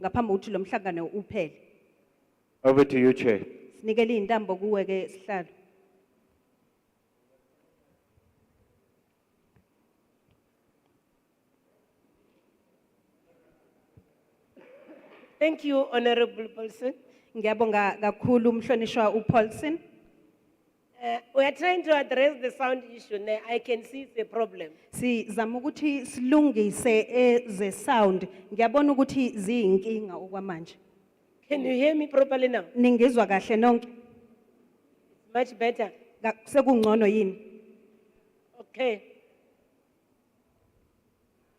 ngaphambi kokuthi lo mhlangano uphele Over to you, Chair. sinikele intambo kuwe ke sihlalo Thank you, Honorable Paulson. ngiyabonga kakhulu umhlonishwa uPaulson Uh, we are trying to address the sound issue. Now, I can see it's a problem. sizama ukuthi silungise eze sound ngiyabona ukuthi ziyinkinga okwamanje Can you hear me properly now? ningizwa kahle nonke Much better. Ka- sekungcono yini Okay.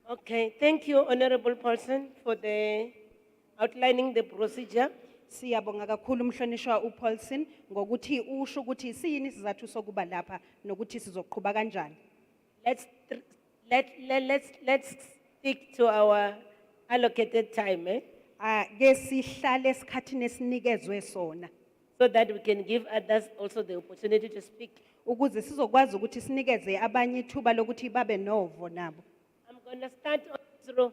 Okay, thank you, Honorable Paulson, for the outlining the procedure. siyabonga kakhulu umhlonishwa uPaulson ngokuthi usho ukuthi siyini sizathu sokuba lapha nokuthi sizoqhubeka kanjani Let's, tr- let, let, let's, let's stick to our allocated time, eh? ake Ah, sihlale esikhathini esinikezwe sona So that we can give others also the opportunity to speak. ukuze sizokwazi ukuthi sinikeze abanye ithuba lokuthi babe novo nabo I'm gonna start on this row.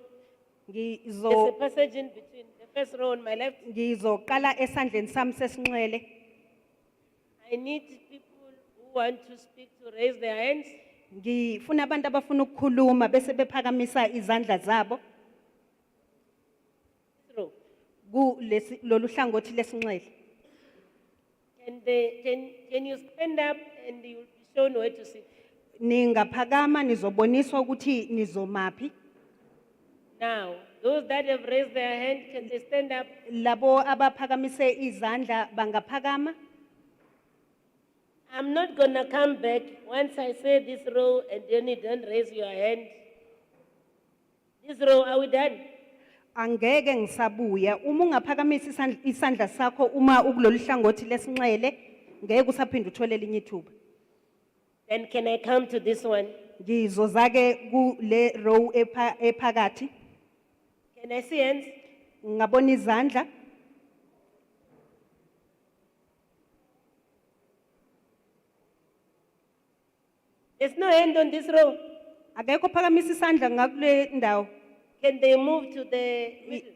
There's a Ngizo- passage in between, the first row on my left. ngizoqala esandleni sami sesinxele I need people who want to speak to raise their hands. ngifuna abantu abafuna ukukhuluma bese bephakamisa izandla zabo Through. kulesi lolu hlangothi lesinxele Can they, can, can you stand up and you'll be shown where to sit? ningaphakama nizoboniswa ukuthi nizomaphi Now, those that have raised their hand, can they stand up? labo abaphakamise izandla bangaphakama I'm not gonna come back once I say this row and then you don't raise your hand. This row, are we done? angeke ngisabuya uma ungaphakamisa isandl- isandla sakho uma ukulolu hlangothi lesinxele ngeke usaphinda uthole elinye ithuba Then can I come to this one? ngizozake kule row epha- ephakathi Can I see hands? ngabona izandla There's no hand on this row. akekho ophakamisa isandla ngakule ndawo Can they move to the middle?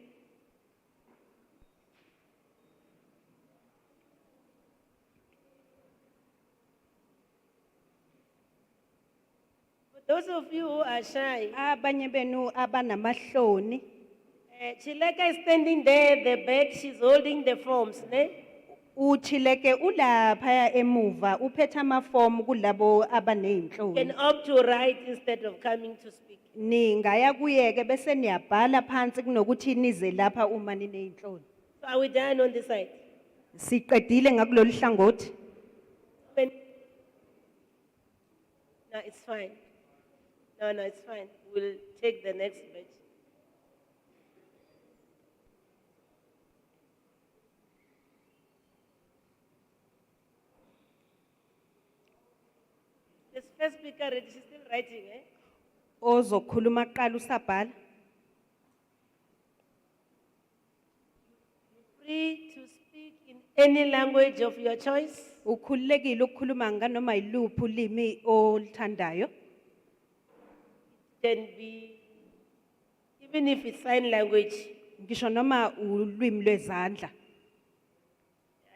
For those of you who are shy, abanye benu abanamahloni uh, Chileka is standing there at the back, she's holding the forms, ne? uthileke ulapha emuva uphethe amafomu kulabo abaney'nhloni Can opt to write instead of coming to speak. ningaya kuyeke bese niyabhala phansi kunokuthi nize lapha uma niney'nhloni So are we done on this side? siqedile ngakulolu hlangothi When- No, it's fine. No, no, it's fine. We'll take the next batch. This first speaker, already, she's still writing, eh? ozokhuluma kuqala usabhala Free to speak in any language of your choice. ukhululekile ukukhuluma nganoma yiluphi ulimi oluthandayo Can be, even if it's sign language. ngisho noma ulwimi lwezandla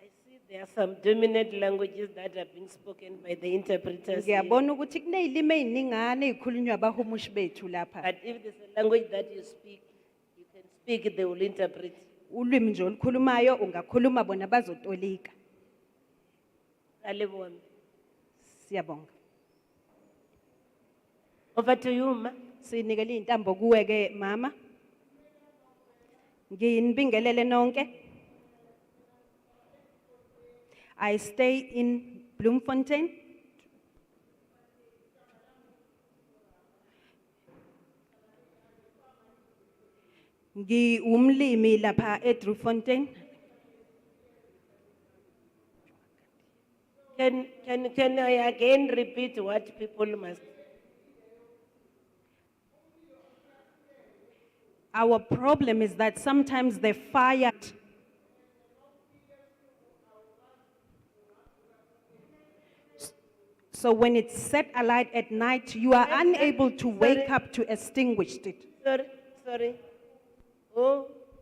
I see there are some dominant languages that are being spoken by the interpreters. here. ngiyabona ukuthi kuney'limi ey'ningane ey'khulunywa abahumushi bethu lapha But if there's a language that you speak, you can speak, it, they will interpret. ulwimi nje olukhulumayo ungakhuluma bona bazotolika Ralebo wami. siyabonga Over to you, ma. sinikele iy'ntambo kuwe-ke mama nginibingelele nonke i stay in bloemfontein ngiwumlimi lapha edrewfontein Can, can, can I again repeat what people must? our problem is that sometimes the fire so when it's set alight at night you are unable to wake up to extinguish it Sorry, sorry. Oh,